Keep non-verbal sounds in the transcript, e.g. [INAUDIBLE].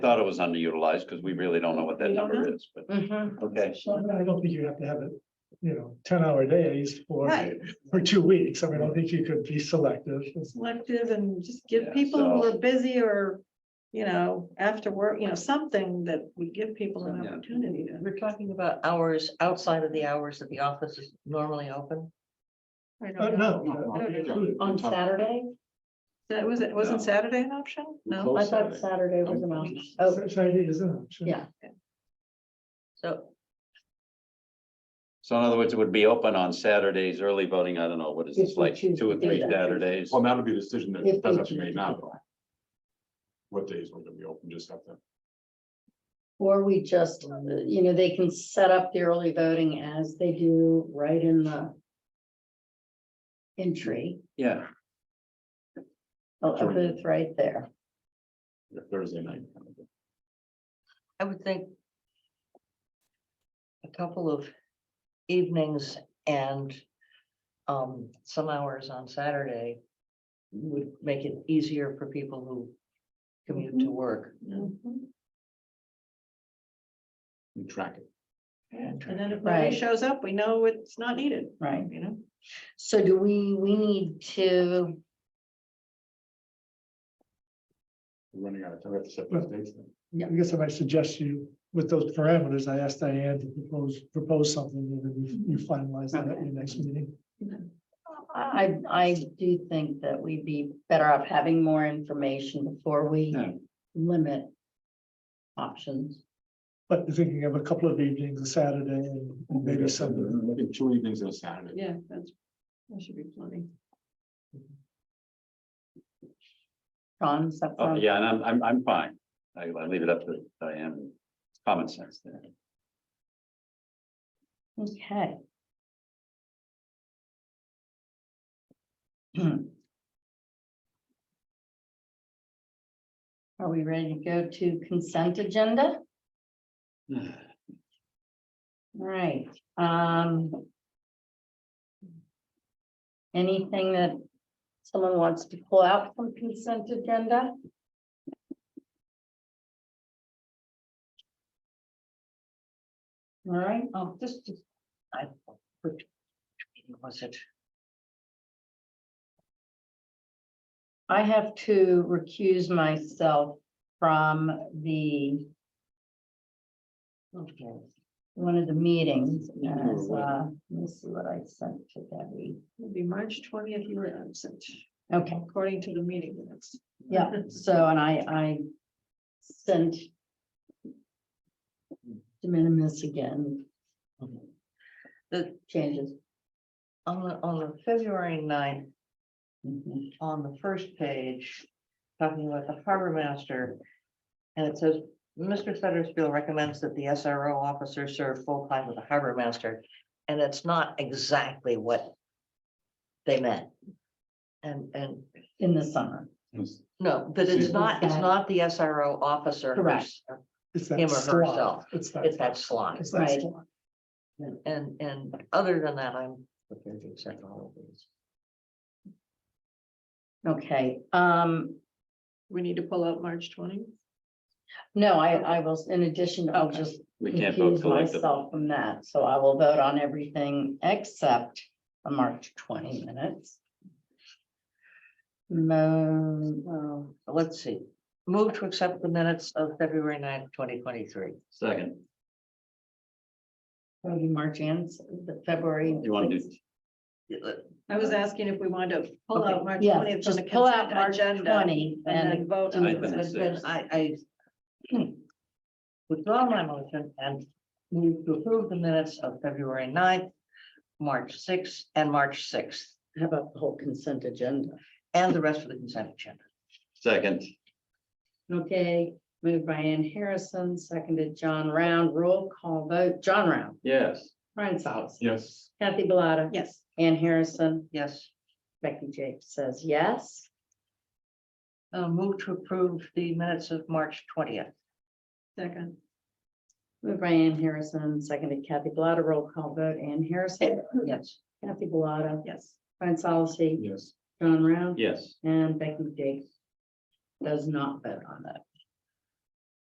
thought it was underutilized because we really don't know what that We don't number know. is, but, Mhm. okay. So I mean, I don't think you have to have it, you know, ten hour days for, Right, for two weeks. I mean, I don't think you could be selective. It's- selective and just give Yeah, people who so- are busy or, you know, after work, you know, something that we give people an Yeah. opportunity to. We're talking about hours outside of the hours that the office is normally open Mm-hmm. I Uh, don't know. no, no, no, no. included. on Saturday? That was, it wasn't No. Saturday an option? No, I thought Saturday was an option. Oh, Saturday is an option. yeah. So, So in other words, it would be open on Saturdays, early voting, I don't know, what is If this, we like, choose two or to do three that. Saturdays? Well, that'll be a decision If they that does have to be choose made to now. do though. What days we're gonna be open, just have to, or we just, uh, you know, they can set up the early voting as they do right in the entry, Yeah, a a booth right there. Thursday night. kind of thing. I would think a couple of evenings and um, some hours on Saturday would make it easier for people who commute to work. Mhm. And track it. And then if nobody Right. shows up, we know it's not needed, Right. you know? So do we, we need to, We're running out of time, we have to set those dates then. I guess I might suggest you, with those parameters, I asked Diane to propose, propose something, and then you you finalize that at your next meeting. I, I do think that we'd be better off having more information before we Yeah. limit options. But you're thinking of a couple of evenings, a Saturday, and maybe Sunday. I think Two evenings and a Saturday. Yeah, that's, that should be plenty. Ron, is that oh, sound- yeah, and I'm, I'm, I'm fine. I, I leave it up to Diane, It's common sense there. Okay. [CLEARS THROAT] Are we ready to go to consent agenda? [SIGHS] Right, um. Anything that someone wants to pull out from consent agenda? All right, oh, this, is- I, which meeting was it? I have to recuse myself from the, Okay. one of the meetings. as, uh, Let me see what I sent to Debbie. It'll be March twentieth, you were absent, Okay, according to the meeting minutes. yeah, so, and I, I sent de minimis again. The- Changes. On the, on the February 9th. Mhm. on the first page, talking about the harbor master. And it says, Mr. Federspiel recommends that the SRO officer serve full time with the harbor master. And it's not exactly what they meant. And, and, In the summer, Yes. no, that it's not, it's not the SRO officer. who's- Correct. It's that Him or slot. herself. It's It's that. that slide. it's that Right. slot. And, and other than that, I'm prepared to accept all of these. okay, um, We need to pull out March twenty. no, I, I will, in addition, I'll Okay. just We can't vote recuse collectively. myself from that, so I will vote on everything except the March twenty minutes. Mo, Um, Let's see, move to accept the minutes of February 9th, twenty twenty-three. Second, that'll be March and s- the February. you want to do, 6th. I was asking if we wanted to pull out Okay, March Yeah, twentieth from the just pull out consent March agenda. twenty And then and, vote I on think the it's- But then I, I withdraw my motion and move to approve the minutes of February 9th, March sixth, and March sixth, how about the whole consent agenda? and the rest of the consent agenda. second, Okay, moved by Ann Harrison, seconded John Round, roll call vote, John Round, yes. Brian Solace, Yes. Kathy Bellata, Yes. Ann Harrison, Yes, Becky Jakes says yes. uh, move to approve the minutes of March twentieth. Second, Moved by Ann Harrison, seconded Kathy Bellata, roll call vote, Ann Harrison, Yes, Kathy Bellata, yes. Brian Solace, Yes. John Round. Yes, And Becky Jakes does not vote on that.